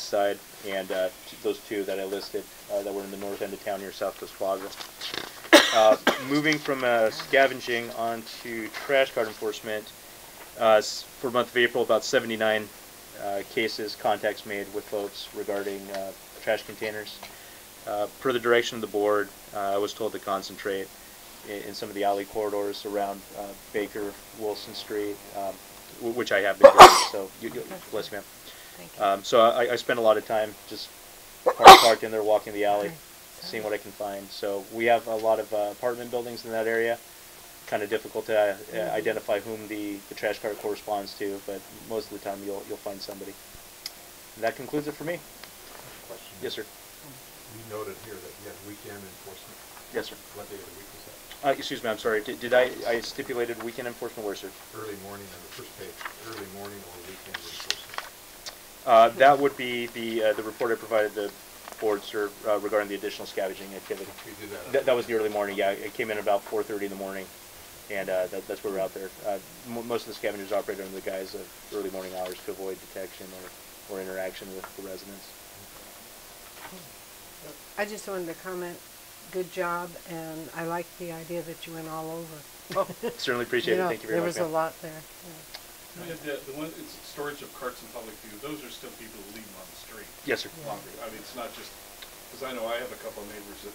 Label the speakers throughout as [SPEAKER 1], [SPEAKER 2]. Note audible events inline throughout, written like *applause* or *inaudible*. [SPEAKER 1] side, and uh, t- those two that I listed uh, that were in the north end of town near South Coast Plaza. Uh, moving from uh, scavenging on to trash card enforcement, uh, s- for the month of April, about 79 uh, cases, contacts made with folks regarding uh, trash containers. Uh, per the direction of the board, uh, I was told to concentrate in, in some of the alley corridors around uh, Baker, Wilson Street, um, w- which I have been doing. So, you, you, bless you, ma'am.
[SPEAKER 2] Thank you.
[SPEAKER 1] Um, so I, I spend a lot of time just parked, parked in there, walking the alley, seeing what I can find. So we have a lot of uh, apartment buildings in that area. Kind of difficult to uh, uh identify whom the, the trash cart corresponds to, but most of the time you'll you'll find somebody. And that concludes it for me.
[SPEAKER 3] Question.
[SPEAKER 1] Yes, sir.
[SPEAKER 3] We noted here that you had weekend enforcement.
[SPEAKER 1] Yes, sir.
[SPEAKER 3] What day of the week was that?
[SPEAKER 1] Uh, excuse me, I'm sorry. Did, did I I stipulated weekend enforcement where, sir?
[SPEAKER 3] Early morning on the first page, early morning or weekend enforcement.
[SPEAKER 1] Uh, that would be the uh, the report I provided the board, sir, uh, regarding the additional scavenging activity.
[SPEAKER 3] We did that. on-
[SPEAKER 1] That, that was the early morning, yeah. It came in about four thirty in the morning, and uh, that, that's where we're out there. Uh, m- most of the scavengers operate under the guise of early morning hours to avoid detection or, or interaction with the residents.
[SPEAKER 2] *laughs* I just wanted to comment, good job, and I like the idea that you went all over.
[SPEAKER 1] Oh, certainly appreciate
[SPEAKER 2] You
[SPEAKER 1] it.
[SPEAKER 2] know,
[SPEAKER 1] Thank you very
[SPEAKER 2] There
[SPEAKER 1] much.
[SPEAKER 2] was a
[SPEAKER 1] ma'am.
[SPEAKER 2] lot there.
[SPEAKER 4] I mean, The, the one, it's storage of carts in public view, those are still people who leave them on the street.
[SPEAKER 1] Yes, sir.
[SPEAKER 4] Laundry, I mean, it's not just, because I know I have a couple of neighbors that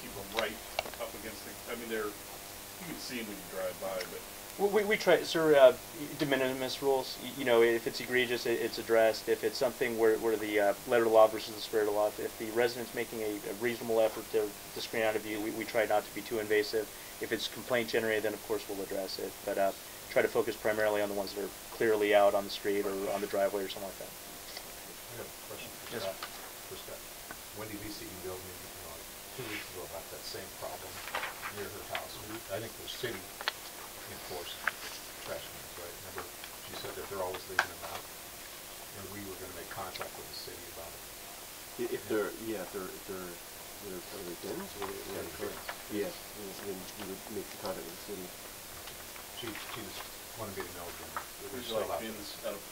[SPEAKER 4] keep them right up against the, I mean, they're, you can see them when you drive by, but
[SPEAKER 1] We, we, we try, sir, uh, de minimis rules, y- you know, if it's egregious, it, it's addressed. If it's something where, where the uh, letter of the law versus the spirit of the law, if- if the resident's making a, a reasonable effort to, to screen out of view, we, we try not to be too invasive. If it's complaint generated, then of course we'll address it, but uh, try to focus primarily on the ones that are clearly out on the street or on the driveway or something like that.
[SPEAKER 3] I have a question for
[SPEAKER 1] Yes,
[SPEAKER 3] Scott. For Scott. Wendy Lisi emailed me, uh, two weeks ago about that same problem near her house. We- I think the city enforced trash cans, right? Remember, she said that they're always leaving them out. And we were gonna make contact with the city about it.
[SPEAKER 5] I- If they're, yeah, if they're, if they're, they're, are they dens? What are they-
[SPEAKER 3] Yeah, they're
[SPEAKER 5] correct. Yeah, then- then you would make the contact with the city.
[SPEAKER 3] She, she just wanted me to know again. that they're
[SPEAKER 4] there's
[SPEAKER 3] still
[SPEAKER 4] like
[SPEAKER 3] out there.
[SPEAKER 4] bins out of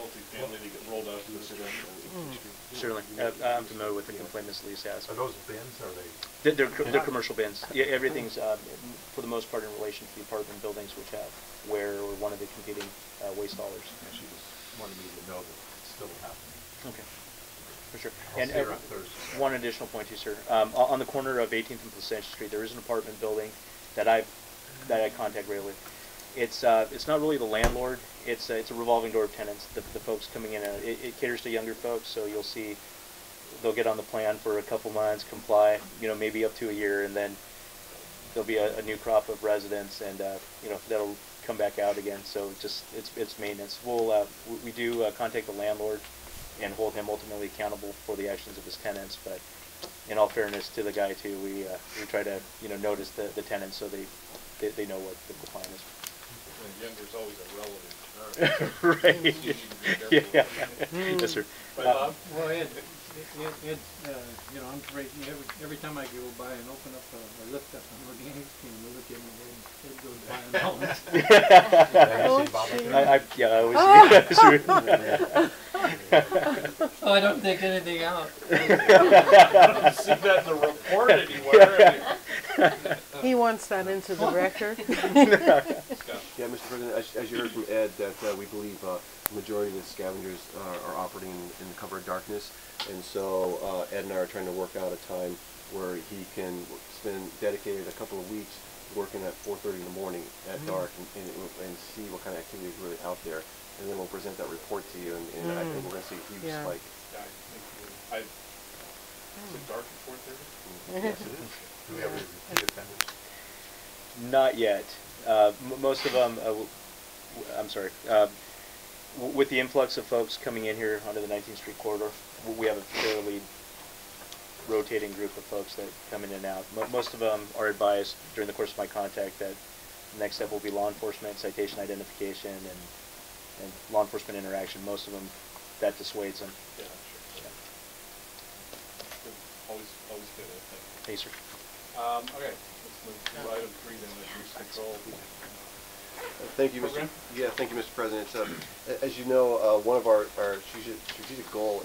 [SPEAKER 4] multifamily that get rolled out to the city.
[SPEAKER 6] Hmm.
[SPEAKER 1] Certainly. Uh, I'm familiar with the complaint Ms. Lisa has.
[SPEAKER 3] Are those bins, are they?
[SPEAKER 1] They're, they're, co- they're commercial bins. Yeah, everything's, uh, for the most part, in relation to the apartment buildings which have where or one of the competing uh, waste haulers.
[SPEAKER 3] And she just wanted me to know that it's still happening.
[SPEAKER 1] Okay, for sure.
[SPEAKER 3] I'll
[SPEAKER 1] And
[SPEAKER 3] see her
[SPEAKER 1] uh,
[SPEAKER 3] on Thursday.
[SPEAKER 1] one additional point too, sir. Um, o- on the corner of 18th and Placentia Street, there is an apartment building that I, that I contact regularly. It's, uh, it's not really the landlord, it's, uh, it's a revolving door of tenants, the, the folks coming in, and out. it, it caters to younger folks, so you'll see, they'll get on the plan for a couple months, comply, you know, maybe up to a year, and then there'll be a, a new crop of residents and, uh, you know, that'll come back out again, so just, it's, it's maintenance. We'll, uh, we- we do uh, contact the landlord and hold him ultimately accountable for the actions of his tenants, but in all fairness to the guy too, we, uh, we try to, you know, notice the, the tenants so they, they, they know what the plan is.
[SPEAKER 4] And Younger's always a relative.
[SPEAKER 1] Right.
[SPEAKER 4] You need to be careful.
[SPEAKER 1] Yeah, yeah. *laughs* Yes, sir.
[SPEAKER 4] Right,
[SPEAKER 1] Uh,
[SPEAKER 4] Bob?
[SPEAKER 6] Well, Ed, it, it- it, uh, you know, I'm afraid, you know, every, every time I go by and open up, uh, or lift up an organic can, I look at it and it goes by and all.
[SPEAKER 3] Have you seen Bob up there?
[SPEAKER 1] I, I, yeah, I always, yes, sir. *laughs*
[SPEAKER 6] Oh, I don't take anything out.
[SPEAKER 4] I didn't see that in the report anywhere. I mean,
[SPEAKER 2] He wants that into the record.
[SPEAKER 4] Scott,
[SPEAKER 5] Yeah, Mr. President, as, as you heard from Ed, that uh, we believe uh, the majority of the scavengers uh, are operating in the cover of darkness. And so uh, Ed and I are trying to work out a time where he can spend dedicated a couple of weeks working at 4.30 in the morning at dark and, and, and see what kind of activity is really out there. And then we'll present that report to you, and, and I think we're going to see a huge
[SPEAKER 2] Yeah.
[SPEAKER 5] spike.
[SPEAKER 4] I think we- I, is it dark at four thirty?
[SPEAKER 5] Yes, it is.
[SPEAKER 3] Do we have any repeat offenders?
[SPEAKER 1] Not yet. Uh, m- most of them, uh, w- w- I'm sorry. Uh, w- with the influx of folks coming in here onto the 19th Street corridor, w- we have a fairly rotating group of folks that come in and out. Mo- most of them are advised during the course of my contact that the next step will be law enforcement, citation identification, and, and law enforcement interaction. Most of them, that dissuades them.
[SPEAKER 4] Yeah, sure. Always, always good, I think.
[SPEAKER 1] Hey, sir.
[SPEAKER 4] Um, okay, let's move to item three then, the use control.
[SPEAKER 5] Thank you, Mr.
[SPEAKER 4] Program?
[SPEAKER 5] Yeah, thank you, Mr. President. Uh, a- As you know, uh, one of our, our strategic strategic goal